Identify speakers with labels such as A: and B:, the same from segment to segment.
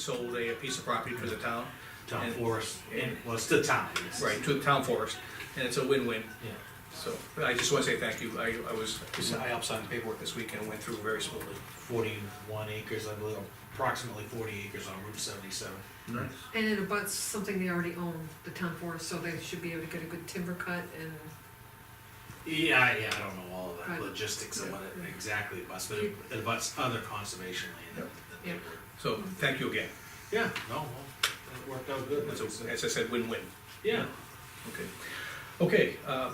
A: sold a piece of property to the town,
B: town
A: And-
B: forest, and, well, it's the town. it's-
A: right, to the town forest, and it's a win-win.
B: Yeah.
A: So, but I just wanna say thank you, I, I was, I helped sign the paperwork this weekend, went through very smoothly.
B: Forty-one acres, I believe, approximately forty acres on Route seventy-seven.
C: Nice.
D: And it abuts something they already own, the town forest, so they should be able to get a good timber cut and
B: Yeah, yeah, I don't know all of
D: Right.
B: the logistics of what it
D: Yeah.
B: exactly abuts, but it it abuts other conservation land. that- that they
D: Yeah.
B: were-
A: So, thank you again,
B: Yeah, no, well, it worked out good. like
A: It's
B: I
A: a-
B: said.
A: as I said, win-win,
B: Yeah,
A: okay. Okay, uh,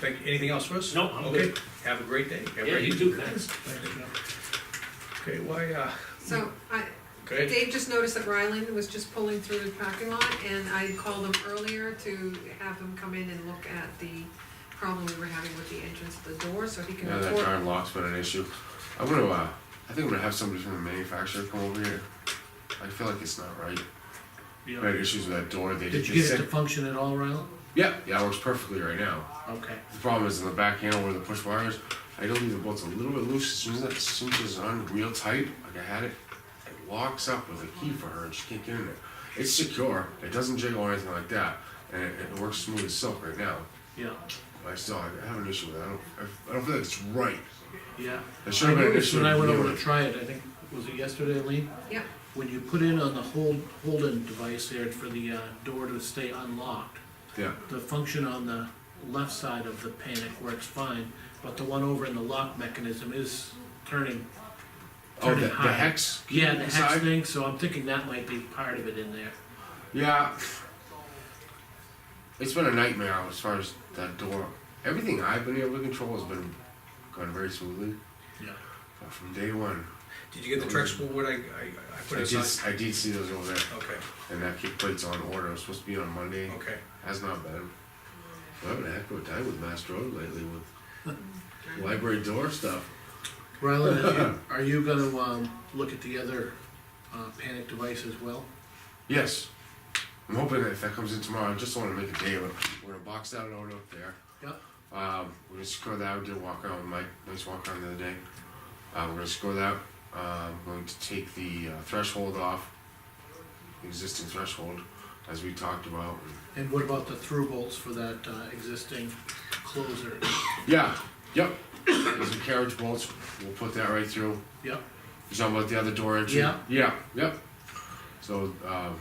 A: thank, anything else for us?
B: No, I'm
A: Okay,
B: good.
A: Have a great day. Have a
B: yeah,
A: great
B: you
A: evening.
B: do, thanks.
A: Okay, why, uh,
D: so I,
A: go ahead.
D: Dave just noticed that Ryland was just pulling through the parking lot and I called him earlier to have him come in and look at the problem we were having with the entrance of the door, so he can
E: Yeah, that
D: report.
E: darn lock's been an issue. I'm gonna, uh, I think I'm gonna have somebody from the manufacturer come over here. I feel like it's not right.
C: Yeah.
E: I had issues with that door. They
C: Did you
E: they
C: get it to
E: sent-
C: function at all, Rylan?
E: Yeah, yeah, it works perfectly right now.
C: Okay.
E: The problem is in the back handle where the push wire is. I don't leave the bolts a little bit loose. As soon as that as soon as it's on real tight, like I had it, it locks up with a key for her and she can't get in there. It's secure. It doesn't jiggle or anything like that, and it, it works smooth as silk right now.
C: Yeah,
E: But I still I have an issue with it. I don't I, I don't feel like it's right.
C: yeah.
E: There should have been an
C: noticed
E: issue.
C: When I went
E: with
C: over to
E: it.
C: try it, I think, was it yesterday, Lee?
D: Yeah,
C: When you put in on the hold, hold-in device there for the, uh, door to stay unlocked,
E: Yeah.
C: the function on the left side of the panic works fine, but the one over in the lock mechanism is turning.
E: Oh,
C: turning
E: the, the
C: high.
E: hex.
C: Yeah, the hex
E: side?
C: thing, so I'm thinking that might be part of it in there.
E: Yeah. It's been a nightmare as far as that door. Everything I've been able to control has been gone very smoothly.
C: Yeah.
E: But from day one,
A: Did you get the Trex board I, I, I put
E: I did,
A: aside?
E: I did see those over there,
A: Okay,
E: and that kick plate's on order. It was supposed to be on Monday.
C: Oh.
A: okay,
E: Has not been. I'm having a heck of a time with Mass Road lately with library door stuff.
C: Rylan, are you- are you gonna, um, look at the other, uh, panic device as well?
E: Yes. I'm hoping that if that comes in tomorrow, I just want to make a day of it. We're gonna box that out up there.
C: Yep.
E: Um, we're gonna score that. We did a walk around with Mike. Nice walk around the other day. Uh, we're gonna score that. Uh, I'm going to take the uh, threshold off, the existing threshold, as we talked about.
C: And what about the through bolts for that uh, existing closer?
E: Yeah. Yep. There's some carriage bolts. We'll put that right through.
C: Yep,
E: You talking about the other door entry?
C: Yeah.
E: Yeah. Yep. So, um,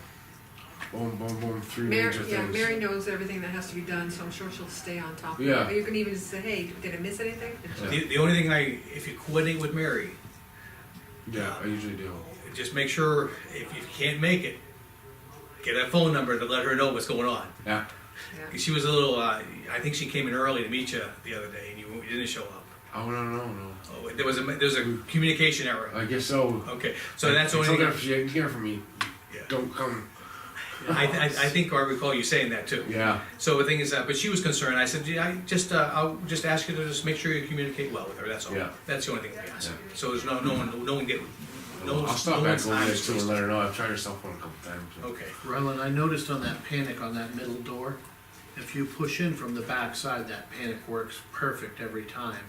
E: boom, boom, boom. Three
D: Mary,
E: major
D: yeah,
E: things.
D: Mary knows everything that has to be done, so I'm sure she'll stay on top of it.
E: Yeah.
D: Or You can even say, hey, did I miss anything? And she'll-
A: the, the only thing I, if you coordinate with Mary,
E: yeah, I usually do.
A: just make sure, if you can't make it, get that phone number to let her know what's going on.
E: Yeah.
D: yeah.
A: 'Cause She was a little, uh, I think she came in early to meet you the other day and you didn't show up.
E: Oh no no no!
A: Oh, there was a, there's a communication error.
E: I guess so.
A: Okay, so that's the
E: It's
A: only
E: okay
A: thing.
E: if you didn't hear from me.
A: Yeah.
E: Don't come.
A: I, I, I think I recall you saying that too.
E: Yeah.
A: So the thing is, uh, but she was concerned. I said, "Gee, I just, uh, I'll just ask you to just make sure you communicate well with her, that's all.
E: Yeah.
A: That's the only thing I asked.
E: Yeah.
A: So there's no, no one, no one get, no
E: I'll
A: one's, no
E: stop back
A: one's
E: over
A: time
E: there
A: is
E: too and
A: wasted.
E: let her know. I've tried her cell phone a couple times.
A: Okay,
C: Rylan, I noticed on that panic on that middle door, if you push in from the back side, that panic works perfect every time.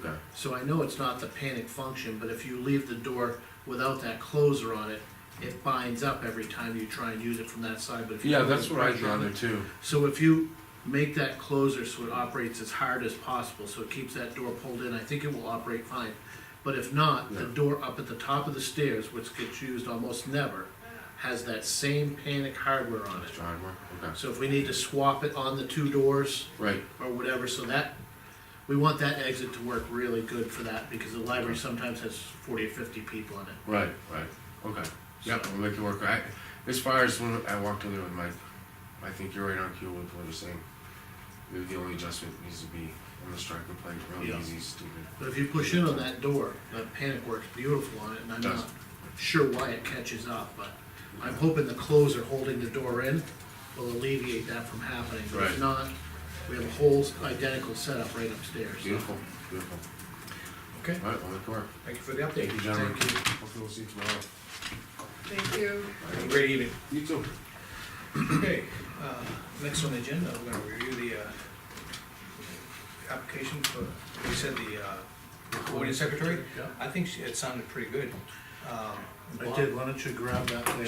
E: Okay.
C: So I know it's not the panic function, but if you leave the door without that closer on it, it binds up every time you try and use it from that side, but if you.
E: Yeah,
C: put
E: that's what I
C: pressure on
E: gather
C: it-
E: too.
C: So if you make that closer so it operates as hard as possible, so it keeps that door pulled in, I think it will operate fine. But if not, the
E: Yeah.
C: door up at the top of the stairs, which gets used almost never, has that same panic hardware on it.
E: Driver. Okay.
C: So if we need to swap it on the two doors
E: Right.
C: or whatever, so that, we want that exit to work really good for that, because the library sometimes has forty or fifty people in it.
E: Right. Right. Okay. Yep. We'll make it work. I, as far as when I walked in there with Mike, I think you're right on cue with what you're saying. Maybe the only adjustment needs to be on the striker plate. Really
C: Yeah.
E: easy, stupid.
C: But if you push in on that door, that panic works beautiful on it, and I'm
E: Does.
C: not sure why it catches up, but I'm hoping the closer holding the door in will alleviate that from happening. But
E: Right.
C: If not, we have a whole identical setup right upstairs. so.
E: Beautiful. Beautiful.
A: okay,
E: All right. We'll make it work.
A: thank you for the
E: Thank
A: update.
E: you, gentlemen.
C: Thank you.
E: Hopefully we'll see you tomorrow.
D: Thank you.
A: Have a Great evening.
E: You too.
A: Okay, uh, next on the agenda, we're gonna review the, uh, application for, we said the, uh, recording secretary.
C: Yeah.
A: I think she- it sounded pretty good. Um,
C: I did, why don't you grab that there?